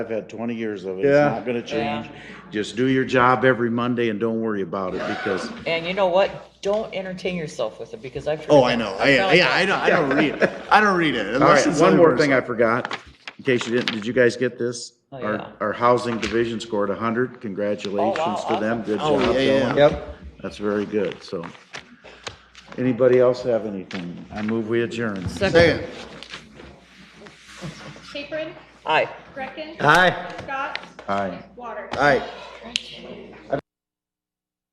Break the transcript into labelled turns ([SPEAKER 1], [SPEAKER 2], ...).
[SPEAKER 1] I've had twenty years of it.
[SPEAKER 2] Yeah.
[SPEAKER 1] It's not gonna change. Just do your job every Monday and don't worry about it because,
[SPEAKER 3] And you know what? Don't entertain yourself with it because I've.
[SPEAKER 4] Oh, I know. I, yeah, I don't, I don't read it. I don't read it.
[SPEAKER 1] all
[SPEAKER 4] unless
[SPEAKER 1] right,
[SPEAKER 4] it's
[SPEAKER 1] one more
[SPEAKER 4] otherwise-
[SPEAKER 1] thing I forgot, in case you didn't, did you guys get this?
[SPEAKER 3] Oh,
[SPEAKER 1] Our-
[SPEAKER 3] yeah.
[SPEAKER 1] Our housing division scored hundred. Congratulations to them. Good
[SPEAKER 4] Oh,
[SPEAKER 1] job,
[SPEAKER 4] yeah, yeah, yeah.
[SPEAKER 1] Dylan.
[SPEAKER 2] Yep.
[SPEAKER 1] That's very good, so. Anybody else have anything? I move we adjourn.
[SPEAKER 4] Second.
[SPEAKER 5] Capron,
[SPEAKER 3] Aye.
[SPEAKER 5] Greckin,
[SPEAKER 2] Aye.
[SPEAKER 5] Scott,
[SPEAKER 1] Aye.
[SPEAKER 5] Water.
[SPEAKER 2] Aye.